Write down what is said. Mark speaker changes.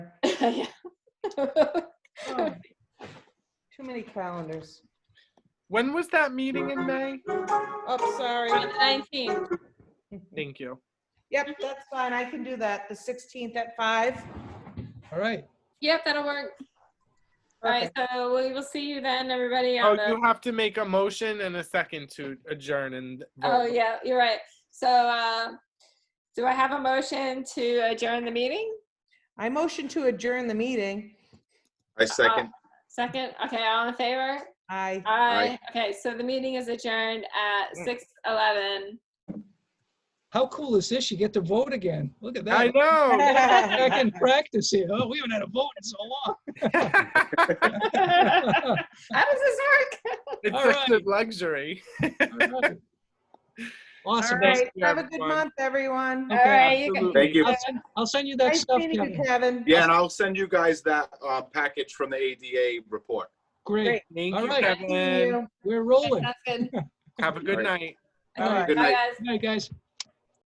Speaker 1: Yeah.
Speaker 2: Oh, Too many calendars.
Speaker 3: When was that meeting in May?
Speaker 2: Oh,
Speaker 1: On
Speaker 2: sorry.
Speaker 1: the 19th.
Speaker 3: Thank you.
Speaker 2: Yep, that's fine. I can do that. The 16th at five.
Speaker 4: All right.
Speaker 1: Yep, that'll work. All right,
Speaker 2: Perfect.
Speaker 1: so we will see you then, everybody.
Speaker 3: Oh,
Speaker 1: On the,
Speaker 3: you have to make a motion and a second to adjourn and.
Speaker 1: oh,
Speaker 3: vote.
Speaker 1: yeah, you're right. So, uh, do I have a motion to adjourn the meeting?
Speaker 2: I motion to adjourn the meeting.
Speaker 5: I second.
Speaker 1: Uh, Second? Okay, all in favor?
Speaker 2: I,
Speaker 1: Aye. Okay, so the meeting is adjourned at 6:11.
Speaker 4: How cool is this? You get to vote again. Look at
Speaker 3: I
Speaker 4: that.
Speaker 3: know.
Speaker 4: Back in practice here. Oh, we haven't had a vote in so
Speaker 1: How
Speaker 4: long.
Speaker 1: does this work?
Speaker 3: It's
Speaker 4: All
Speaker 3: such a
Speaker 4: right.
Speaker 3: luxury.
Speaker 4: All right.
Speaker 2: all
Speaker 4: Awesome.
Speaker 2: right.
Speaker 3: you,
Speaker 2: Have a good
Speaker 3: everyone.
Speaker 2: month, everyone.
Speaker 1: All
Speaker 4: Okay,
Speaker 1: right, you can-
Speaker 3: Absolutely.
Speaker 5: Thank you.
Speaker 4: I'll send, I'll send you that
Speaker 2: Nice
Speaker 4: stuff,
Speaker 2: meeting you,
Speaker 4: Kevin.
Speaker 2: Kevin.
Speaker 5: Yeah, and I'll send you guys that uh, package from the ADA report.
Speaker 4: Great.
Speaker 2: Great.
Speaker 3: Thank
Speaker 4: All
Speaker 3: you,
Speaker 4: right.
Speaker 2: Seeing
Speaker 3: Kevin.
Speaker 2: you.
Speaker 4: We're rolling.
Speaker 1: That's good.
Speaker 3: Have a good
Speaker 5: All right.
Speaker 3: night.
Speaker 1: Okay,
Speaker 2: All right.
Speaker 5: Good
Speaker 1: Bye,
Speaker 5: night.
Speaker 1: guys.
Speaker 4: Good night, guys.